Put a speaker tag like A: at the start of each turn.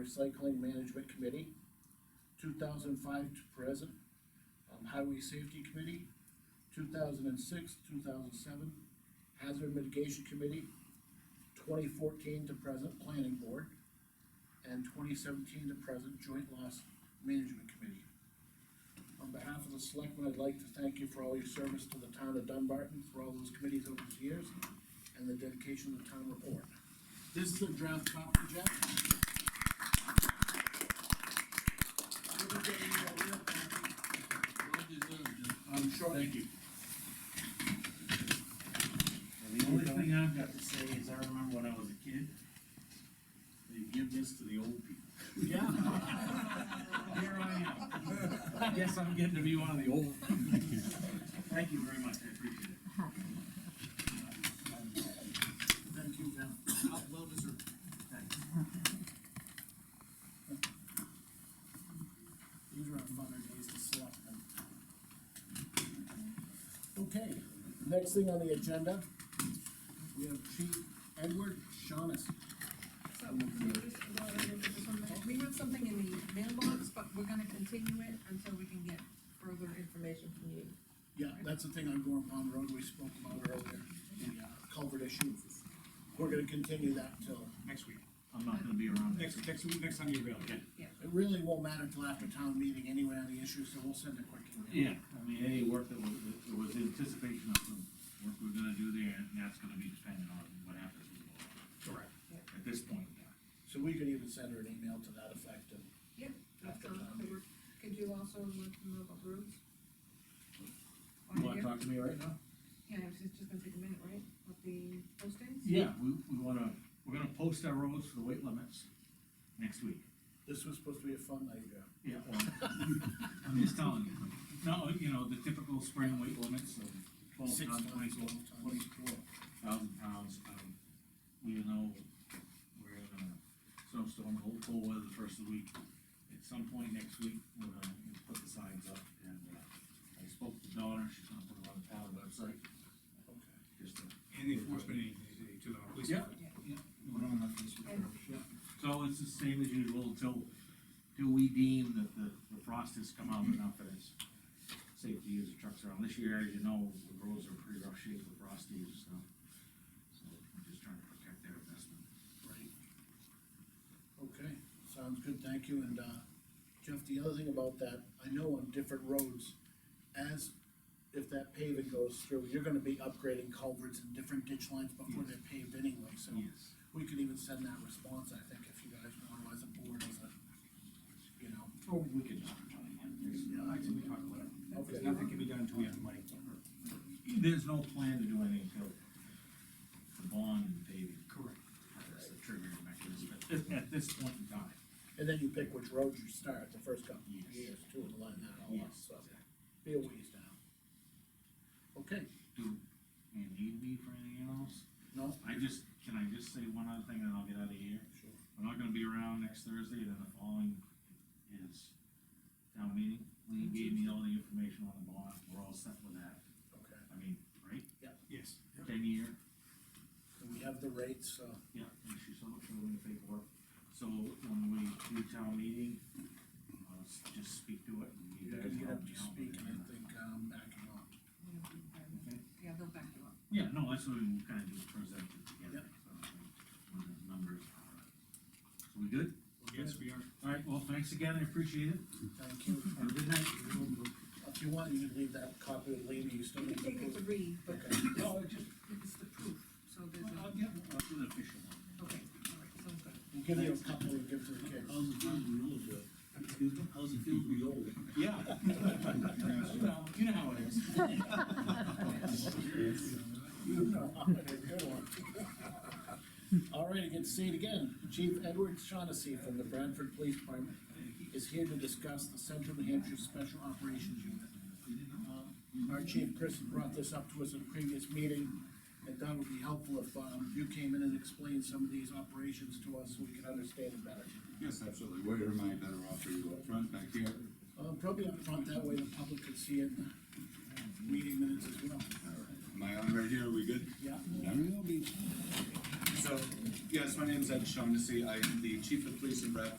A: Recycling Management Committee, two thousand five to present, um, Highway Safety Committee, two thousand and six, two thousand seven, Hazard Mitigation Committee, twenty fourteen to present, Planning Board, and twenty seventeen to present, Joint Loss Management Committee. On behalf of the selectmen, I'd like to thank you for all your service to the town of Dunbarton, for all those committees over the years, and the dedication to the town report. This is a draft copy, Jack. We'll be getting you a real copy. I'm sure. Thank you.
B: And the only thing I've got to say is I remember when I was a kid, they give this to the old people.
A: Yeah.
B: Here I am. Guess I'm getting to be one of the old. people. Thank you very much, I appreciate it.
A: Thank you, Val.
C: Well deserved.
A: These are our funner days to select them. Okay, next thing on the agenda, we have Chief Edward Shaughnessy.
D: So, we just go over this one minute. we have something in the mailbox, but we're gonna continue it until we can get further information from you.
A: Yeah, that's the thing on Gorham Pond Road we spoke about earlier, the uh, culvert issue. We're gonna continue that till,
C: Next week,
B: I'm not gonna be around next
C: next, next week, next time you're available.
A: it really won't matter till after town meeting anyway on the issue, so we'll send a quick email.
B: Yeah, I mean, any work that was, that was anticipation of some work we're gonna do there, and that's gonna be dependent on what happens with the law.
C: Correct.
B: At this point, yeah.
A: So we could even send her an email to that effect and
D: Yeah, that's all, so we're, could you also look them up on roads? On
B: You wanna
D: here?
B: talk to me right now?
D: Yeah, it's just it's gonna take a minute, right, with the postings?
B: Yeah, we, we wanna, we're gonna post our roads for the weight limits next week.
A: this was supposed to be a fun night, yeah.
B: Yeah, well, I'm just telling you. No, you know, the typical spring weight limits of twelve
A: Six
B: tons,
A: tons,
B: twenty-four,
A: 12 tons.
B: twenty-four thousand pounds. Um, We know we're in a snowstorm, cold, cold weather the first of the week. At some point next week, we're gonna put the signs up and, uh, I spoke to Donna, she's gonna put it on the town website,
A: Okay.
B: just to.
C: And the enforcement agency to the police.
B: Yeah,
C: department.
B: yeah.
D: And
B: So it's the same as usual until, till we deem that the, the frost has come out enough that it's safe to use the trucks around. This year, as you know, the roads are in pretty rough shape with frost use, so. So we're just trying to protect their investment.
A: Right. Okay, sounds good, thank you, and, uh, Jeff, the other thing about that, I know on different roads, as if that paving goes through, you're gonna be upgrading culverts and different ditch lines before they're paved anyway, so
B: Yes.
A: we could even send that response, I think, if you guys want, as a board, as a, you know.
B: Or we could just try and, there's,
C: Yeah, I can talk about it.
A: Okay.
C: There's nothing can be done until we have the money.
B: there's no plan to do anything until the bond and paving.
C: Correct.
B: That's the triggering mechanism at, at this point in time.
A: And then you pick which roads you start, the first couple of
B: Yes.
A: years, too, and line that all up,
B: Yes,
A: so, be a ways down. Okay,
B: Do you need me for anything else?
A: no,
B: I just, can I just say one other thing and I'll get out of here?
A: sure,
B: We're not gonna be around next Thursday, then the following is town meeting. Lee gave me all the information on the bond, we're all set with that.
A: okay,
B: I mean, right,
C: Yes.
B: ten year,
A: and we have the rates, so.
B: yeah, and she showed showed me the paperwork. So when we do town meeting, I'll s- just speak to it and you
A: You're
B: guys
A: gonna get
B: help
A: up
B: me
A: to
B: out
A: speak
B: with
A: and I
B: it.
A: think, um, backing up.
B: Okay?
D: Yeah, they'll back you up.
B: Yeah, no, that's what we kinda do, present it together,
A: Yep.
B: so, like, when the numbers are. So we good?
C: Yes, we are.
B: All right, well, thanks again, I appreciate it.
A: Thank you.
B: Have a good night.
A: If you want, you can leave that copy with Lean, you still
D: You
A: need
D: can
A: to.
D: take it to
A: prove-
D: read, but
A: Okay,
B: No, it just,
D: it's the proof, so there's
B: Well,
D: a,
B: I'll get, I'll do an official one.
D: okay, all right, sounds good.
A: we'll give you a couple and give to the kids.
E: How's it feel to be old, Bill? Excuse me? How's it feel to be old?
B: Yeah. You know, you know how it is.
A: You know, it's a good one. All right, good to see you again. Chief Edward Shaughnessy from the Bradford Police Department is here to discuss the Central New Hampshire Special Operations Unit. Um, Our chief, Chris, brought this up to us in a previous meeting, and that would be helpful if, um, you came in and explained some of these operations to us so we could understand it better.
F: Yes, absolutely. Where am I better off for you up front back here?
A: Uh, probably up front, that way the public could see it in the meeting minutes as well.
F: All right. Am I on right here? Are we good?
A: Yeah,
F: So, yes, my name's Ed Shaughnessy. I am the chief of police in Bradford.